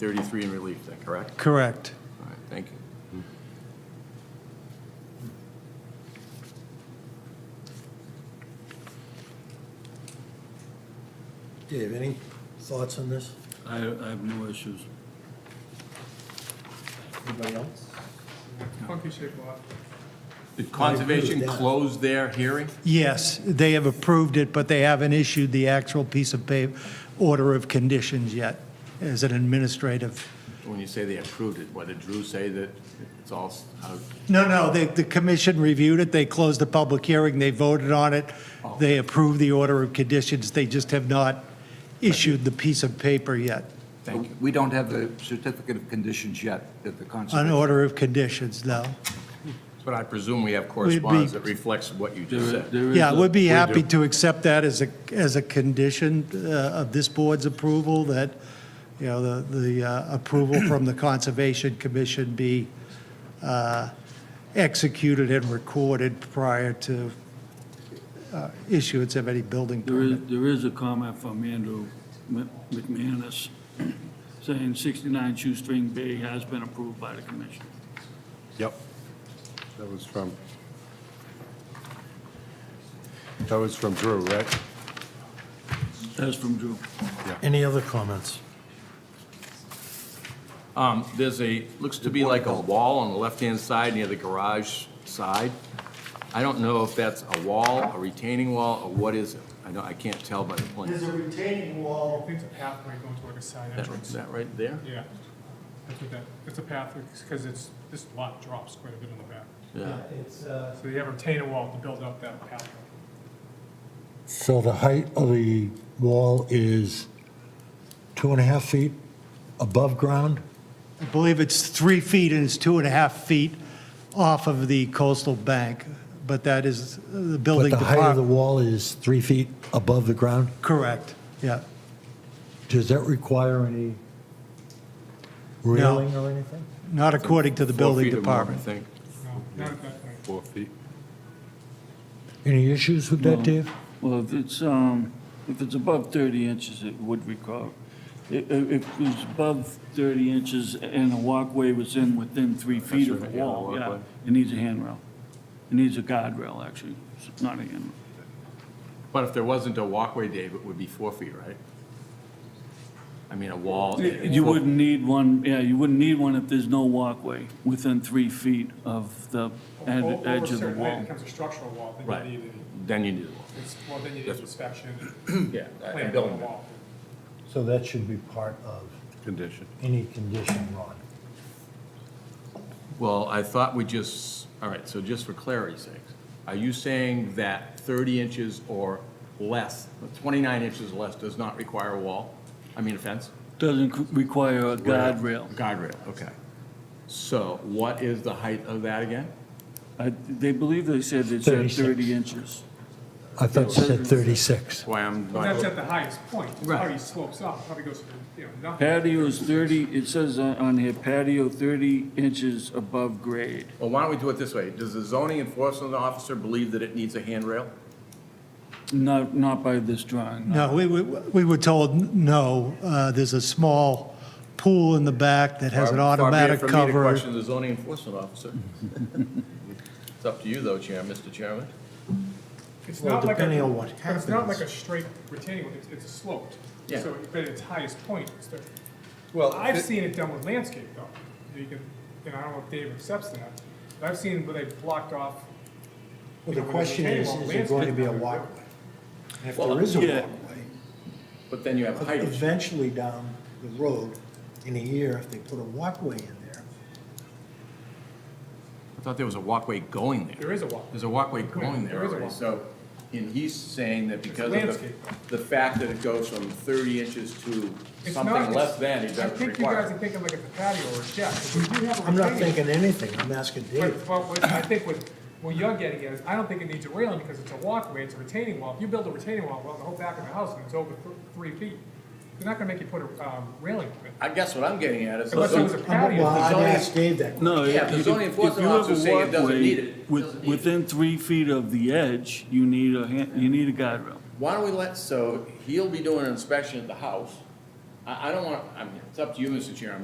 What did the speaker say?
33 in relief then, correct? Correct. All right, thank you. Dave, any thoughts on this? I, I have no issues. Anybody else? Funky shaped lot. Did I agree Conservation with that. close their hearing? Yes, they have approved it, but they haven't issued the actual piece of pay, order of conditions yet as an administrative. When you say they approved it, what, did Drew say that it's all, s- how- No, no, the, the commission reviewed it, they closed the public hearing, they voted on it, they approved the order of conditions, they just have not issued the piece of paper yet, thank you. We don't have the certificate of conditions yet that the an conservation. order of conditions, no. But I presume we have correspondence that reflects what you just There- said. there is Yeah, a- we'd be we happy do. to accept that as a, as a condition uh, of this board's approval, that, you know, the, the uh, approval from the Conservation Commission be uh, executed and recorded prior to uh, issuance of any building There is, permit. there is a comment from Andrew Mc- McManus saying 69 Shoestring Bay has been approved by the commission. Yep. That was from, that was from Drew, right? That's from Drew. Any other comments? Um, There's a, looks to be like a wall on the left-hand side near the garage side. I don't know if that's a wall, a retaining wall, or what is it? I know, I can't tell by the plans. a retaining I wall. think it's a pathway going toward a side That- Is entrance. that right there? Yeah, that's what that, it's a path, because it's, this lot drops quite a bit on the back. Yeah. It's, uh, So you have a retaining wall to build up that pathway. So the height of the wall is two and a half feet above ground? I believe it's three feet and it's two and a half feet off of the coastal bank, but that is uh, the But building the height of the department. wall is three feet above the ground? Correct, yeah. Does that require any railing or anything? Not according to the Four building feet or more, department. I think. No, not at that point. Four feet. Any issues with that, Dave? Um, Well, if it's, um, if it's above 30 inches, it would require. If, if it's above 30 inches and the walkway was in within three feet of the right, yeah, the wall, yeah, walkway. it needs a handrail. It needs a guardrail, actually, It's not a handrail. But if there wasn't a walkway, Dave, it would be four feet, right? I mean, a wall. You wouldn't need one, yeah, you wouldn't need one if there's no walkway within three feet of the ed- Over- over edge a of the certain height, It wall. becomes a structural wall, Right. then you need, Then you need a wall. a- it's, well, then you need That's- inspection. Yeah. plan for the wall. So that should be part of Condition. any condition, Ron. Well, I thought we just, all right, so just for clarity's sake, are you saying that 30 inches or less, 29 inches or less does not require a wall? I mean, a fence? Doesn't c- require a guardrail. Guardrail, okay. So what is the height of that again? I- They believe they said it's at 36. 30 inches. I thought you said 36. Why I'm, But that's at the highest point, it Right. probably slopes up, probably goes to, you know, nothing. Patio is 30, it says on- on here patio 30 inches above grade. well, why don't we do it this way? Does the zoning enforcement officer believe that it needs a handrail? Not, not by this drawing. No, we, we we were told, n- no, uh, there's a small pool in the back that has an Far- far be it automatic from me to cover. question the zoning enforcement officer. It's up to you, though, Chair, Mr. Chairman. It's Well, not like a- depending on what But it's not like a happens. straight retaining, wall, it's, it's sloped. Yeah. So, but at its highest point, it's thirty. Well, I've it- seen it done with landscape though. You can, and I don't know if Dave accepts that, but I've seen where they've blocked off. Well, the question is, is there going to be a walkway? And if there is a Yeah. walkway, But then you have height issues. eventually down the road, in a year, if they put a walkway in there, I thought there was a walkway going there. There is a walkway. There's a walkway going There there is a already, so, and he's saying that because of landscape. the, the fact that it goes from thirty inches to It's not- something less than, it I doesn't think you guys are require. thinking like it's a patio or a deck. but we do have a I'm not retaining- thinking anything, I'm asking Dave. But, but what I think what, what you're getting at is, I don't think it needs a railing because it's a walkway, it's a retaining wall. If you build a retaining wall, well, the whole back of the house, and it's over th- three feet, they're not gonna make you put a, um, railing in it. I guess what I'm getting at is, Unless it was a yeah, I'm- Well, patio. I'd zoning- ask Dave that. No, Yeah, if the if- zoning if enforcement you have officer a saying it doesn't walkway need it, with- doesn't need it. Within three feet of the edge, you need a, han- you need a guardrail. why don't we let, so he'll be doing an inspection at the house. I, I don't want, I mean, it's up to you, Mr. Chair, I'm